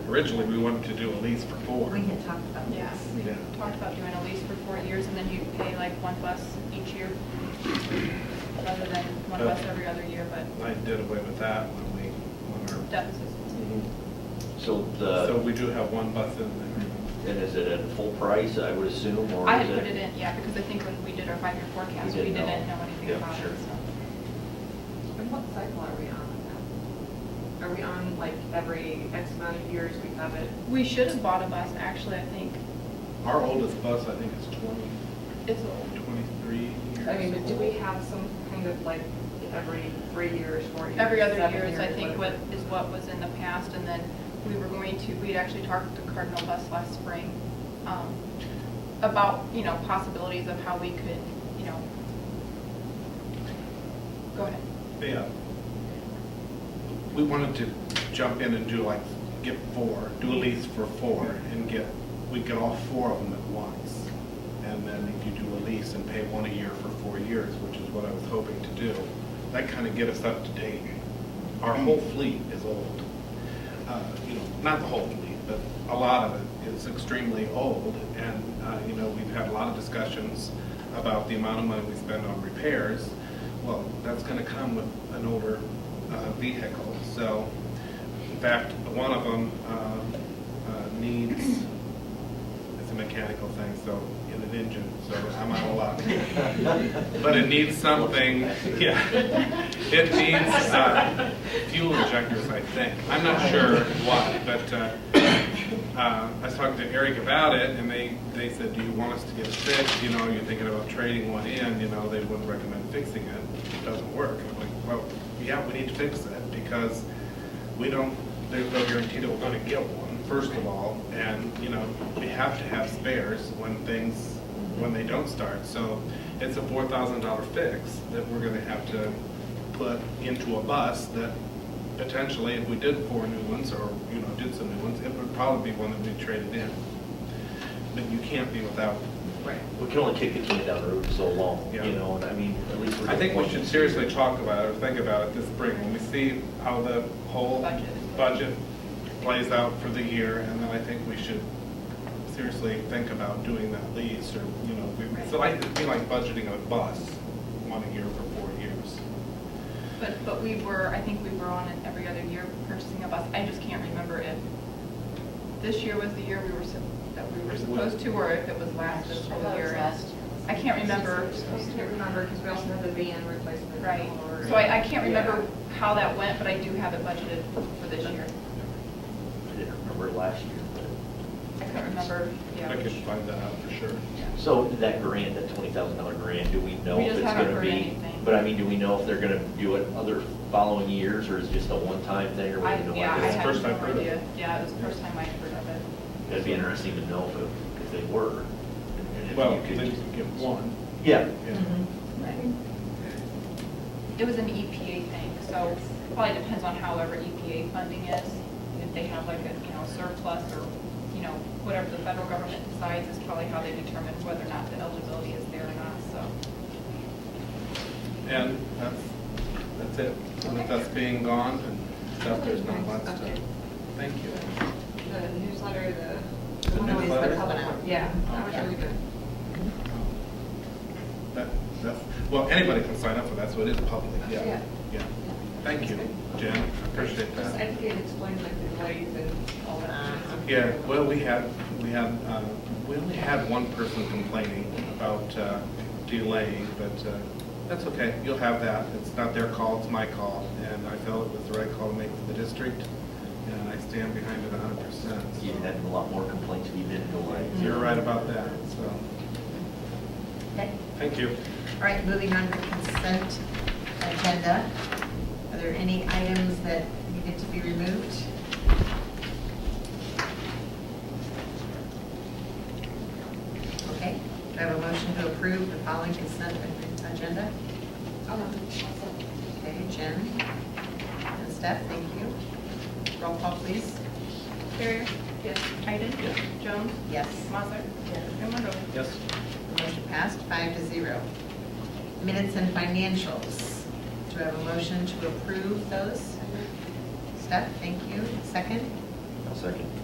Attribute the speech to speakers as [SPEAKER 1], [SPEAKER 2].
[SPEAKER 1] Originally, we wanted to do a lease for four.
[SPEAKER 2] We had talked about
[SPEAKER 3] Yeah,
[SPEAKER 2] this.
[SPEAKER 3] we
[SPEAKER 1] Yeah.
[SPEAKER 3] talked about doing a lease for four years, and then you pay like one bus each year, rather than one
[SPEAKER 1] Oh.
[SPEAKER 3] bus every other year, but
[SPEAKER 1] I did away with that when we, when our.
[SPEAKER 3] deficits.
[SPEAKER 1] Mhm.
[SPEAKER 4] So
[SPEAKER 1] So
[SPEAKER 4] the,
[SPEAKER 1] we do have one bus in there.
[SPEAKER 4] and is it at full price, I would assume, or
[SPEAKER 3] I
[SPEAKER 4] is
[SPEAKER 3] had put it in, yeah, because I think when we did our five-year forecast,
[SPEAKER 4] You
[SPEAKER 3] we
[SPEAKER 4] didn't
[SPEAKER 3] didn't
[SPEAKER 4] know.
[SPEAKER 3] know anything
[SPEAKER 4] Yeah,
[SPEAKER 3] about it,
[SPEAKER 4] sure.
[SPEAKER 3] so.
[SPEAKER 5] And what cycle are we on with that? Are we on like every X amount of years we have it?
[SPEAKER 3] We should have bought a bus, actually, I think.
[SPEAKER 1] Our oldest bus, I think, is 20,
[SPEAKER 3] It's old.
[SPEAKER 1] 23 years.
[SPEAKER 5] I mean, but do we
[SPEAKER 1] old.
[SPEAKER 5] have some kind of like every three years, four years?
[SPEAKER 3] Every other
[SPEAKER 5] seven
[SPEAKER 3] year is, I think, what,
[SPEAKER 5] whatever?
[SPEAKER 3] is what was in the past, and then we were going to, we'd actually talked to Cardinal Bus last spring um, about, you know, possibilities of how we could, you know, go ahead.
[SPEAKER 1] Yeah. We wanted to jump in and do like, get four, do a lease for four and get, we get all four of them at once. And then if you do a lease and pay one a year for four years, which is what I was hoping to do, that kind of get us up to date. Our whole fleet is old. Uh, You know, not the whole fleet, but a lot of it is extremely old. And, uh, you know, we've had a lot of discussions about the amount of money we spend on repairs. Well, that's going to come with an older uh, vehicle. So, in fact, one of them uh, needs, it's a mechanical thing, so, in an engine, so I'm out of luck. But it needs something, yeah. It needs uh, fuel injectors, I think. I'm not sure why, but uh, uh, I was talking to Eric about it, and they, they said, do you want us to get it fixed? You know, you're thinking about trading one in, you know, they wouldn't recommend fixing it. It doesn't work. And I'm like, well, yeah, we need to fix it because we don't, there's no guarantee that we're gonna get one, first of all. And, you know, we have to have spares when things, when they don't start. So it's a four thousand dollar fix that we're gonna have to put into a bus that potentially, if we did four new ones or, you know, did some new ones, it would probably be one that we traded in. But you can't be without. Right.
[SPEAKER 4] We can only kick the can down the road so long,
[SPEAKER 1] Yeah.
[SPEAKER 4] you know, and I mean, at least we're.
[SPEAKER 1] I think we
[SPEAKER 4] getting
[SPEAKER 1] should
[SPEAKER 4] one.
[SPEAKER 1] seriously talk about it or think about it this spring when we see how the whole
[SPEAKER 3] Budget.
[SPEAKER 1] budget plays out for the year. And then I think we should seriously think about doing that lease or, you know, we- it's like, it'd be like budgeting a bus one a year for four years.
[SPEAKER 3] But, but we were, I think we were on it every other year purchasing a bus. I just can't remember if this year was the year we were, sup- that we were supposed to, or if it was last fiscal year. I can't remember.
[SPEAKER 5] I can't remember because we also have the van replacement.
[SPEAKER 3] Right,
[SPEAKER 5] or-
[SPEAKER 3] so I, I can't remember
[SPEAKER 5] Yeah.
[SPEAKER 3] how that went, but I do have it budgeted for this year.
[SPEAKER 4] I didn't remember last year, but,
[SPEAKER 3] I couldn't remember,
[SPEAKER 1] I
[SPEAKER 3] yeah.
[SPEAKER 1] could find that out for sure.
[SPEAKER 4] so that grant, that twenty thousand dollar grant, do we know
[SPEAKER 3] We
[SPEAKER 4] if
[SPEAKER 3] just
[SPEAKER 4] it's
[SPEAKER 3] haven't
[SPEAKER 4] gonna
[SPEAKER 3] heard
[SPEAKER 4] be?
[SPEAKER 3] anything.
[SPEAKER 4] But I mean, do we know if they're gonna do it other following years, or is it just a one-time thing, or we
[SPEAKER 3] I,
[SPEAKER 4] have no
[SPEAKER 3] yeah, I
[SPEAKER 1] It's
[SPEAKER 4] idea?
[SPEAKER 1] the
[SPEAKER 3] had
[SPEAKER 1] first
[SPEAKER 3] no
[SPEAKER 1] I've heard of it.
[SPEAKER 3] idea. Yeah, it was the first time I heard of it.
[SPEAKER 4] It'd be interesting to know if, it- if they were. and if
[SPEAKER 1] Well,
[SPEAKER 4] you could
[SPEAKER 1] then you
[SPEAKER 4] just-
[SPEAKER 1] can get one.
[SPEAKER 4] Yeah,
[SPEAKER 1] yeah.
[SPEAKER 2] Mm-hmm.
[SPEAKER 3] Mm-hmm. It was an EPA thing, so probably depends on however EPA funding is. If they have like a, you know, surplus or, you know, whatever the federal government decides is probably how they determine whether or not the eligibility is there or not, so.
[SPEAKER 1] And that's, that's it. And With us being gone and stuff, there's not much to, thank you.
[SPEAKER 5] The newsletter, the.
[SPEAKER 1] The
[SPEAKER 5] one always been
[SPEAKER 1] newsletter?
[SPEAKER 5] coming out. Yeah, that was
[SPEAKER 1] Okay.
[SPEAKER 5] really good.
[SPEAKER 1] That, that's, well, anybody can sign up for that, so it is public, yeah.
[SPEAKER 5] Yeah.
[SPEAKER 1] Yeah. Thank you, Jen, I appreciate
[SPEAKER 5] Just, I
[SPEAKER 1] that.
[SPEAKER 5] think it explains like the delays and all that.
[SPEAKER 1] Yeah, well, we had, we had, uh, we only had one person complaining about uh, delaying, but uh, that's okay, you'll have that. It's not their call, it's my call, and I felt it was the right call to make for the district, and I stand behind it a hundred percent. so.
[SPEAKER 4] you had a lot more complaints if you didn't delay.
[SPEAKER 1] You're right about that, so,
[SPEAKER 2] Okay,
[SPEAKER 1] thank you.
[SPEAKER 2] all right, moving on to consent agenda. Are there any items that needed to be removed? Okay, do I have a motion to approve the following consent agenda?
[SPEAKER 5] Oh,
[SPEAKER 2] Okay, Jen and Steph, thank you. Roll call, please.
[SPEAKER 3] Carrier? Yes. Iden?
[SPEAKER 4] Yes.
[SPEAKER 3] Jones?
[SPEAKER 2] Yes.
[SPEAKER 3] Mazzer? And Wonderly?
[SPEAKER 1] Yes.
[SPEAKER 2] Motion passed, five to zero. Minutes and financials. Do I have a motion to approve those? Steph, thank you. Second?
[SPEAKER 4] I'll second.